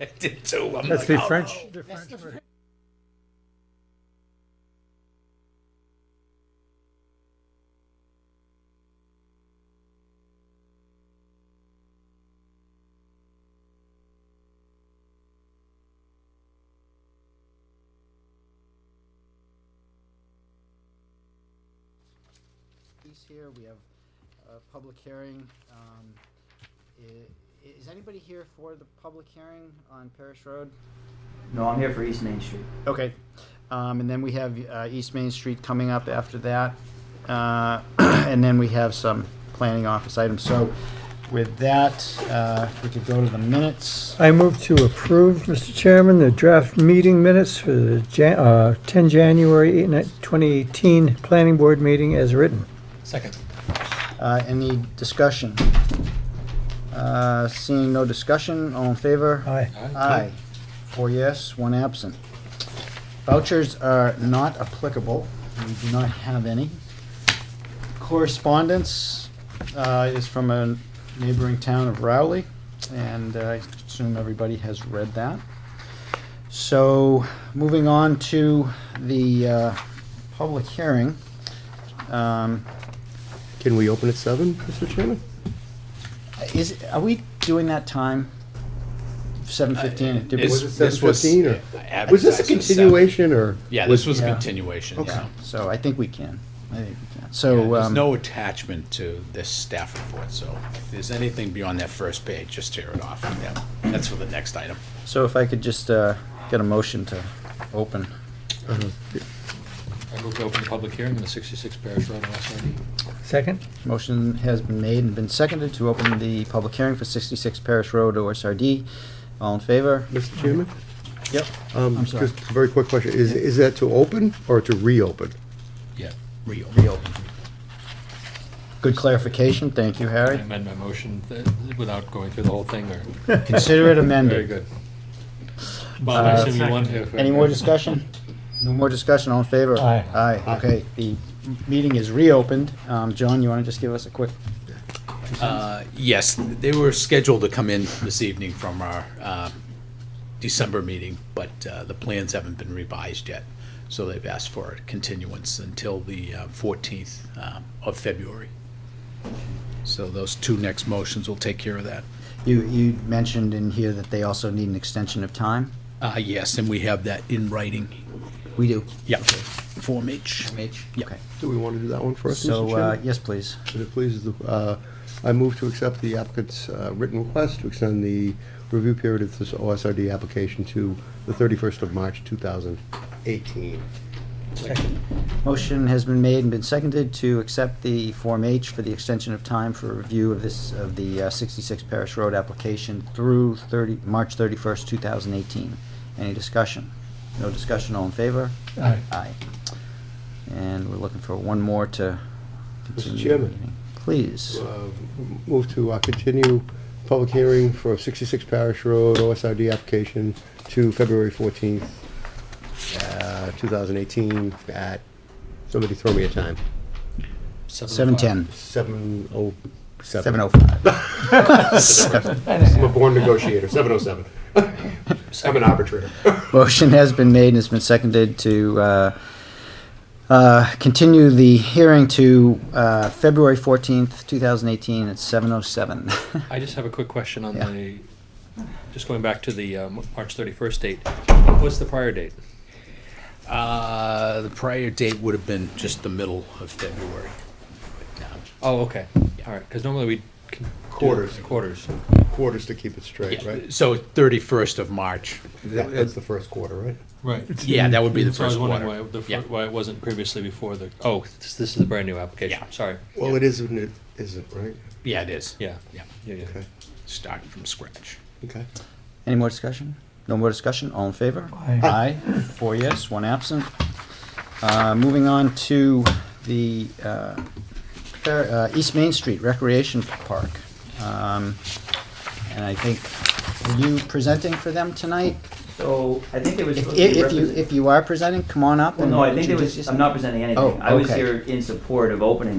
I did too. I'm like, That's the oh, French. The That's French the version. piece here, we have a public hearing. Um, i- Is anybody here for the public hearing on Parish Road? No, I'm here for East Main Street. Okay, um, and then we have, uh, East Main Street coming up after that. Uh, and then we have some planning office items, so with that, uh, if we could go to the minutes. I move to approve, Mr. Chairman, the draft meeting minutes for the Jan- uh, 10 January 8 ni- 2018 Planning Board meeting as written. Second. Uh, any discussion? Uh, seeing no discussion, all in favor? Aye. Aye. Four yes, one absent. Vouchers are not applicable. We do not have any. Correspondence uh, is from a neighboring town of Rowley, and I assume everybody has read that. So, moving on to the uh, public hearing. Um, Can we open at seven, Mr. Chairman? Is, are we doing that time? 7:15? Did we- It's- Was it this was- 7:15 or- yeah, Was advertised this a for seven. continuation or? Yeah, this was a Yeah. continuation. Yeah, so- so I think we can. I think we can. Yeah, So, There's um, no attachment to this staff report, so if there's anything beyond that first page, just tear it off. Yeah, That's for the next item. so if I could just, uh, get a motion to open. I move to open the public hearing on the 66 Parish Road, West Dundee. Second? Motion has been made and been seconded to open the public hearing for sixty-six Parish Road, OSRD. All in favor? Mr. Chairman? Yep. Um, I'm sorry. Just a very quick question. Is, is that to open or to reopen? Yeah. Reopen. Good clarification. Thank you, I Harry. amend my motion uh, without going through the whole thing, or? Consider it Very amended. good. Bob, I Uh, assume you want to? Any more discussion? No more discussion. All in favor? Aye. Aye. Okay, the m- meeting is reopened. Um, John, you wanna just give us a quick Uh, Yes, they were scheduled to come in this evening from our uh, December meeting, but uh, the plans haven't been revised yet, so they've asked for a continuance until the uh, 14th um, of February. So those two next motions will take care of that. You, you mentioned in here that they also need an extension of time? Uh, Yes, and we have that in writing. We do. Yeah, Form H. H? Yeah. Okay. Do we want to do that one first, Mr. So, uh, Chairman? yes, please. If it pleases, the- uh, I move to accept the applicant's uh, written request to extend the review period of this OSRD application to the 31st of March, 2018. Motion has been made and been seconded to accept the Form H for the extension of time for review of this, of the uh, 66 Parish Road application through 30, March 31st, 2018. Any discussion? No discussion, all in favor? Aye. Aye. And we're looking for one more to continue. the Chairman. meeting. Please. Uh, Move to uh, continue public hearing for 66 Parish Road OSRD application to February 14th, uh, 2018 at, somebody throw me a time, 7:10. 7:07. 7:05. I'm a born negotiator, 7:07. I'm an arbitrator. Motion has been made and it's been seconded to uh, uh, continue the hearing to uh, February 14th, 2018 at 7:07. I just have a quick question on Yeah. the, just going back to the um, March 31st date. What's the prior date? Uh, The prior date would have been just the middle of February. but, um, Oh, okay, all right, because normally we. can do Quarters. Quarters. Quarters to keep it straight, yeah, right? So 31st of March. That- That's the first quarter, right? Right. Yeah, that would be the So I was first wondering quarter. why the fir- Yeah. Why it wasn't previously before the, oh, this this is a brand-new application, Yeah. sorry. Well, it is and it isn't, right? Yeah, it is. Yeah. Yeah, Yeah, yeah. Okay, starting from scratch. okay. Any more discussion? No more discussion? All in favor? Aye. Four yes, one absent. Uh, Moving on to the uh, Fair- uh, East Main Street Recreation Park. Um, And I think, are you presenting for them tonight? So I think there was. If, supposed to be if if you, represent- if you are presenting, come on up Well, and. no, I think there introduce was, I'm yourself. not presenting anything. Oh, I was okay. here in support of opening the